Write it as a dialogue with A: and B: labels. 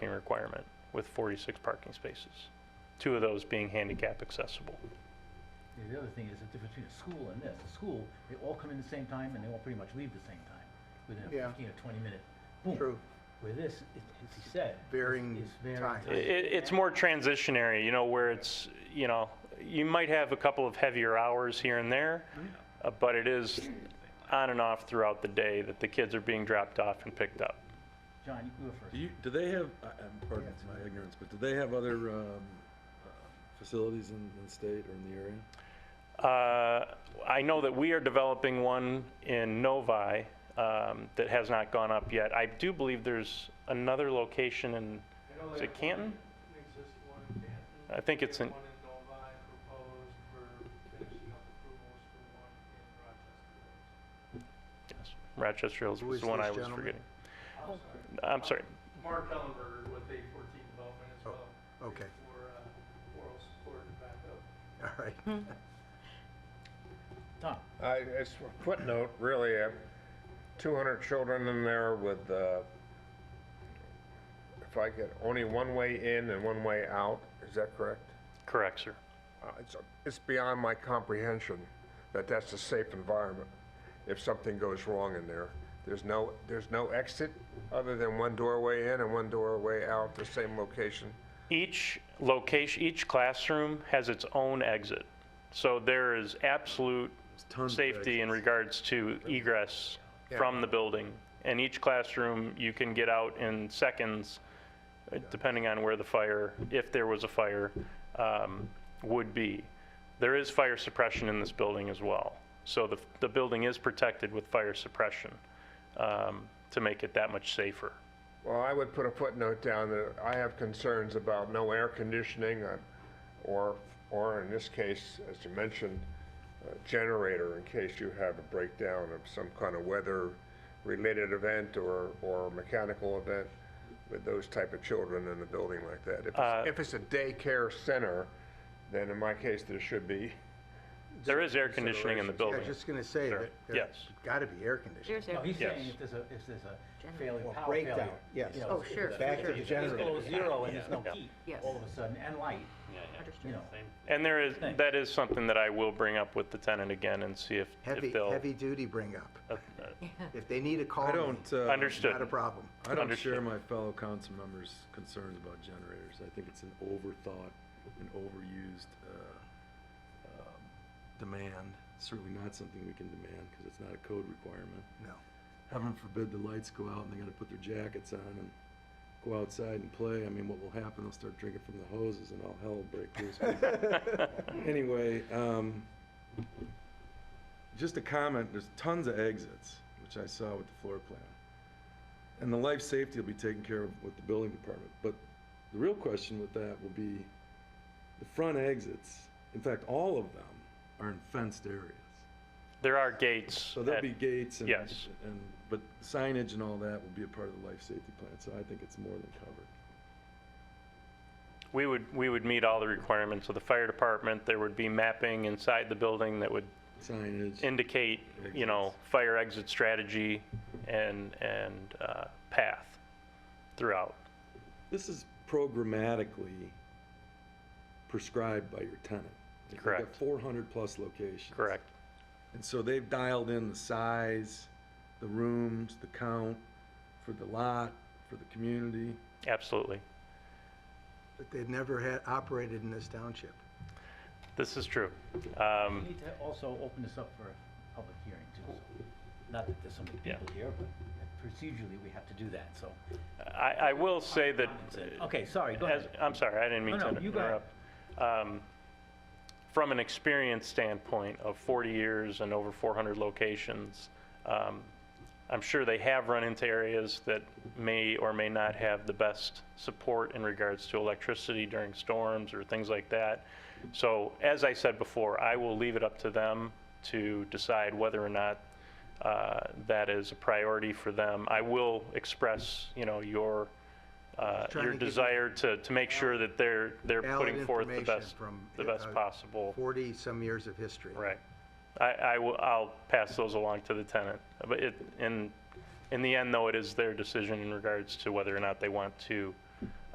A: requirement with 46 parking spaces, two of those being handicap accessible.
B: Yeah, The other thing is the difference between a school and this. A school, they all come in the same time and they all pretty much leave the same time, within a
C: Yeah.
B: fifteen or twenty minute boom.
C: True.
B: Where this, it- as he said. is-
C: Varying
B: is varying
C: time.
A: It, it's more transitionary, you know, where it's, you know, you might have a couple of heavier hours here and there, uh, but it is on and off throughout the day that the kids are being dropped off and picked up.
B: John, you go first.
D: Do you, do they have, I- I'm, pardon
C: it's
D: my ignorance, but do they have other, um, uh, facilities in, in the state or in the area?
A: Uh, I know that we are developing one in Novi um, that has not gone up yet. I do believe there's another location in, is it Canton?
E: An existing one in Canton.
A: I think it's
E: They
A: in-
E: have One in Novi proposed, we're finishing up approvals for one in Rochester.
A: Yes, Rochester Hills
C: Who
A: was
C: is
A: the one
C: this
A: I was
C: gentleman?
A: forgetting.
E: I'm sorry.
A: I'm sorry.
E: Mark Ellenberger with A fourteen development as
C: Oh,
E: well.
C: okay.
E: For, uh, oral support and backup.
C: All right.
B: Tom,
F: I, it's a footnote, really, uh, 200 children in there with, uh, if I could, only one way in and one way out, is that correct?
A: Correct, sir.
F: Uh, It's, it's beyond my comprehension that that's a safe environment if something goes wrong in there. There's no, there's no exit other than one doorway in and one doorway out, the same location.
A: Each location, each classroom has its own exit. So there is absolute
D: tons of
A: safety in regards to egress
F: Yeah.
A: from the building. And each classroom, you can get out in seconds, uh, depending on where the fire, if there was a fire, um, would be. There is fire suppression in this building as well. So the, the building is protected with fire suppression um, to make it that much safer.
F: Well, I would put a footnote down that I have concerns about no air conditioning uh, or, or in this case, as you mentioned, a generator in case you have a breakdown of some kind of weather-related event or, or mechanical event with those type of children in a building like that. If
A: Uh,
F: it's- If it's a daycare center, then in my case, there should be.
A: There is air conditioning in the
C: I
A: building.
C: was just gonna say
A: Sure.
C: that
A: Yes.
C: there's gotta be air conditioning.
G: There's
B: no,
G: a,
B: he's saying
A: Yes.
B: if there's a, if there's a
G: Generator.
B: failure,
C: Or
B: power
C: breakdown,
B: failure.
C: yes.
B: you know,
G: Oh,
B: if- if
G: sure,
B: the-
G: Back to
B: if
G: the
B: it's below zero and there's no
A: Yeah.
B: heat,
G: Yes.
B: all of a sudden, and light, you
G: understood.
B: know.
A: And there is,
B: Thanks.
A: that is something that I will bring up with the tenant again and see if,
C: Heavy,
A: if they'll.
C: heavy duty bring up.
A: uh,
C: If they need a call
D: I
C: me,
D: don't, uh.
A: Understood.
C: Not a problem.
D: I don't
A: Understood.
D: share my fellow council members' concerns about generators. I think it's an overthought and overused, uh, um, demand. Certainly not something we can demand because it's not a code requirement.
C: No.
D: Heaven forbid the lights go out and they gotta put their jackets on and go outside and play. I mean, what will happen? They'll start drinking from the hoses and all hell will break loose. Anyway, um, just a comment, there's tons of exits, which I saw with the floor plan. And the life safety will be taken care of with the building department, but the real question with that will be the front exits, in fact, all of them are in fenced areas.
A: There are gates.
D: So there'll
A: at-
D: be gates and,
A: yes.
D: and, but signage and all that will be a part of the life safety plan, so I think it's more than covered.
A: We would, we would meet all the requirements of the fire department. There would be mapping inside the building that would
D: Signage,
A: indicate, you know, fire exit strategy and, and uh, path throughout.
D: this is programmatically prescribed by your tenant.
A: Correct.
D: Four hundred plus locations.
A: Correct.
D: And so they've dialed in the size, the rooms, the count for the lot, for the community.
A: Absolutely.
C: But they've never had, operated in this township.
A: This is true.
B: We
A: Um,
B: need to also open this up for a public hearing too, so, not that there's so many
A: Yeah.
B: people here, but procedurally, we have to do that, so.
A: I, I will say that.
B: Okay, sorry, go
A: As-
B: ahead.
A: I'm sorry, I didn't mean
B: No,
A: to
B: no, you go ahead.
A: interrupt. Um, From an experience standpoint of 40 years and over 400 locations, um, I'm sure they have run into areas that may or may not have the best support in regards to electricity during storms or things like that. So as I said before, I will leave it up to them to decide whether or not uh, that is a priority for them. I will express, you know, your, uh,
C: trying
A: your
C: to give you
A: desire to, to make sure that they're, they're
C: Valid
A: putting forth the
C: information
A: best,
C: from,
A: the best
C: uh,
A: possible.
C: Forty-some years of history.
A: Right. I, I will, I'll pass those along to the tenant. But it, in, in the end, though, it is their decision in regards to whether or not they want to